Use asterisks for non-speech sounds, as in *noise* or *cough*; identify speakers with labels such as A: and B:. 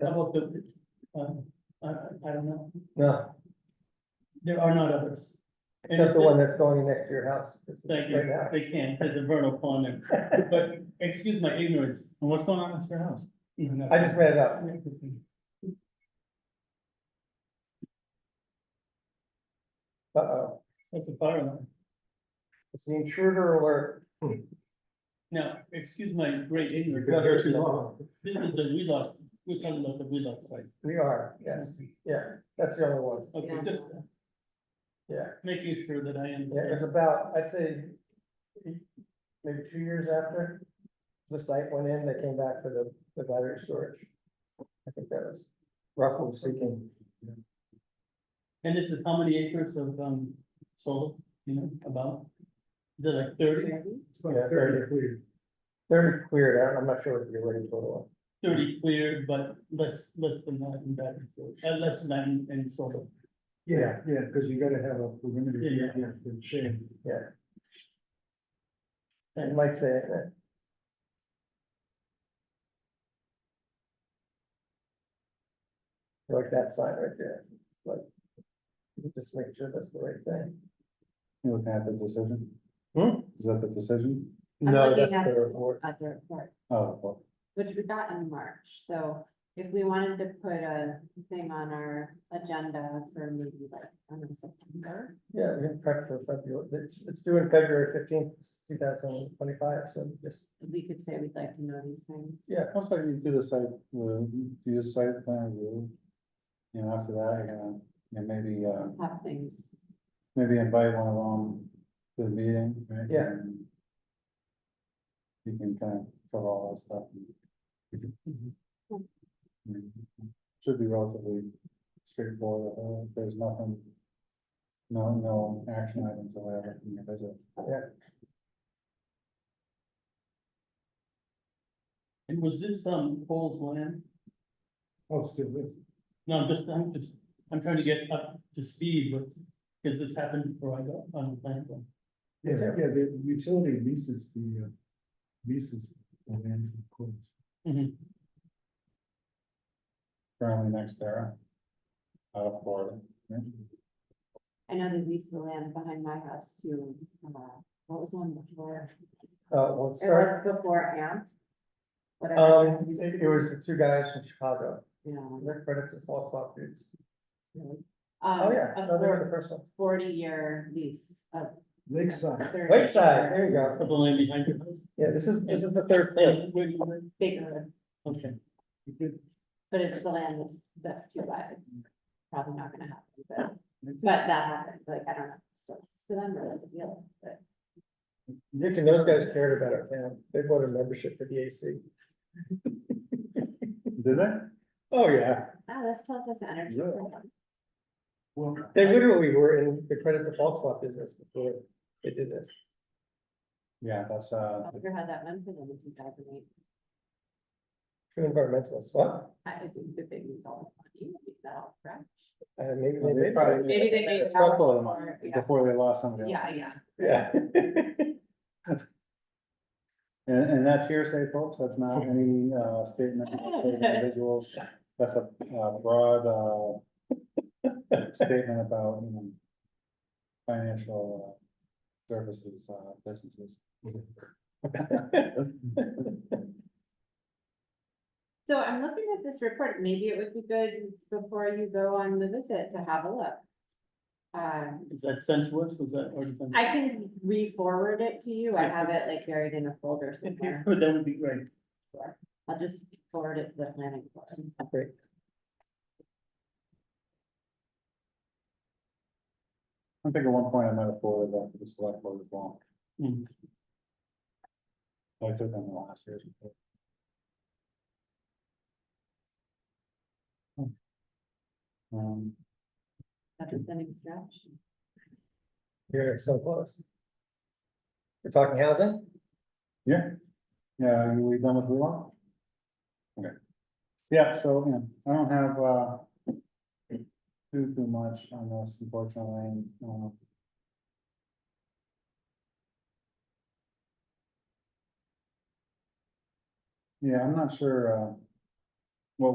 A: How about the, um, I, I don't know,
B: No,
A: there are not others. And
B: except the
A: it's-
B: one that's going in next to your house. This is
A: Thank you,
B: right now.
A: they can, there's a vernal pond there, but excuse my ignorance, and what's going on at your house?
B: I just read it up. Uh-oh,
A: That's a fire alarm.
B: it's the intruder alert.
A: Now, excuse my great ignorance.
B: been here too long.
A: This is the relock, we're talking about the relock site.
B: We are, yes, yeah, that's the only one.
A: Okay,
C: Yeah.
A: just.
B: Yeah.
A: Making sure that I
B: Yeah, it was
A: understand.
B: about, I'd say, maybe two years after the site went in, they came back for the, the battery storage. I think that was roughly speaking.
A: And this is how many acres of, um, solar, you know, about? Is it like thirty?
B: Yeah, thirty cleared. Thirty cleared, I don't- I'm not sure what you're ready for.
A: thirty clear, but less, less than that in battery storage, uh, less than that in- in solar.
D: Yeah, yeah, because you gotta have a perimeter,
A: Yeah, yeah.
D: yeah, for shade.
B: It might say it, but- Like that sign right there, like. you Just make sure that's the right thing.
D: You're looking at the decision?
B: Hmm?
D: Is that the decision?
C: I'm
B: No,
C: looking
B: that's
C: at-
B: the report.
C: at the report,
D: Oh, well,
C: which we got in March, so if we wanted to put a thing on our agenda for maybe like, I don't know, September.
B: Yeah, we can prep for February, it's, it's due in February fifteenth, two thousand twenty-five, so just,
C: We could say we'd like to know these things.
B: yeah,
D: that's like you do the site, the, do the site plan review. You know, after that, you're gonna, you know, maybe, uh,
C: Have things,
D: maybe invite one along to the meeting, right?
B: Yeah.
D: And You can kind of cover all that stuff. and-
B: Mm-hmm.
D: Mhm. Should be relatively straightforward, uh, there's nothing, no, no action items or whatever from your visit.
A: And was this, um, Cole's land?
D: Oh, still,
A: No, I'm just, I'm just, I'm trying to get up to speed with, because this happened before I got on the plan. board.
D: Yeah,
B: Yeah.
D: yeah, the utility leases the, uh, leases the land from courts.
A: Mhm.
D: Currently next era. Out of Florida. yeah.
C: I know they leased the land behind my house to, uh, what was the one before?
B: uh, we'll
C: It
B: start.
C: was before AMP. Whatever.
B: Um, it, it was the two guys from Chicago,
C: Yeah.
B: they're credit to Fall Swap dudes. Oh, yeah, no, they were the
C: Um,
B: first one.
C: a forty-year lease of.
D: Lakeside.
C: 30
B: Lakeside, there you
A: Put
B: go.
A: the land behind your house?
B: Yeah, this is, this is the third thing.
A: Yeah, where do you live?
C: Bigger,
A: Okay,
D: You could-
C: but it's the land that's, that's too wide,
D: Mm.
C: it's probably not gonna happen, but. But that happened, like, I don't know, so, to them, or like, yeah, but
B: Nick and those guys cared about our town, they bought a membership for the AC.
D: Did they?
B: Oh, yeah,
C: ah, this tells us energy.
D: Yeah. Well,
B: they literally were in the credit default swap business before they did this.
D: yeah, that's, uh,
C: I've had that one for them in two thousand eight,
B: True environmentalists, what?
C: I think the big was all money, is that all correct?
B: Uh, maybe
D: Well,
B: they
D: they
B: did.
D: probably-
C: Maybe they made.
D: it's a lot of money
C: Yeah.
D: before they lost somebody else.
C: Yeah, yeah,
B: Yeah.
D: And, and that's hearsay, folks,
C: *laughs*
D: that's not any, uh, statement of those individuals, that's a, uh, broad,
C: *laughs*
D: uh, statement about, you know, financial uh, services, uh, businesses.
C: so I'm looking at this report, maybe it would be good before you go on the visit to have a look. Um,
A: is that sent to us, was that already sent?
C: I can re-forward it to you, I have it like buried in a folder
A: If you
C: somewhere,
A: could, Oh, that would be great.
C: I'll just forward it to the planning board.
B: Great.
D: I think at one point I might have forwarded that to the select board as well.
A: Hmm.
D: I took them the last year's. report. Hmm. Um,
C: After sending stretch.
B: You're so close. We're talking housing?
D: Yeah, yeah, are we done with Wheelock? Okay. Yeah, so, you know, I don't have, uh. Too, too much on this, unfortunately, um. Yeah, I'm not sure, uh.